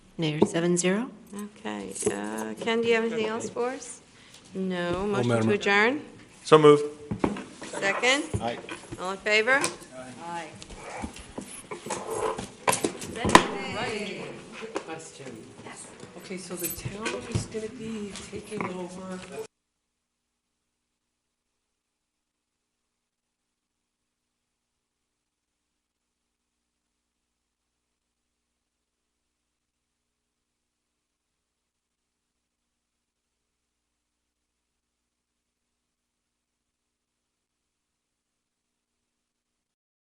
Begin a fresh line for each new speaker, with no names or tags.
Mayor, seven zero.
Okay. uh, Ken, do you have anything else for us? No. Motion
Madam-
to adjourn?
So moved.
Second? Aye. All in favor? Aye.
Question. Okay, so the town is gonna be taking over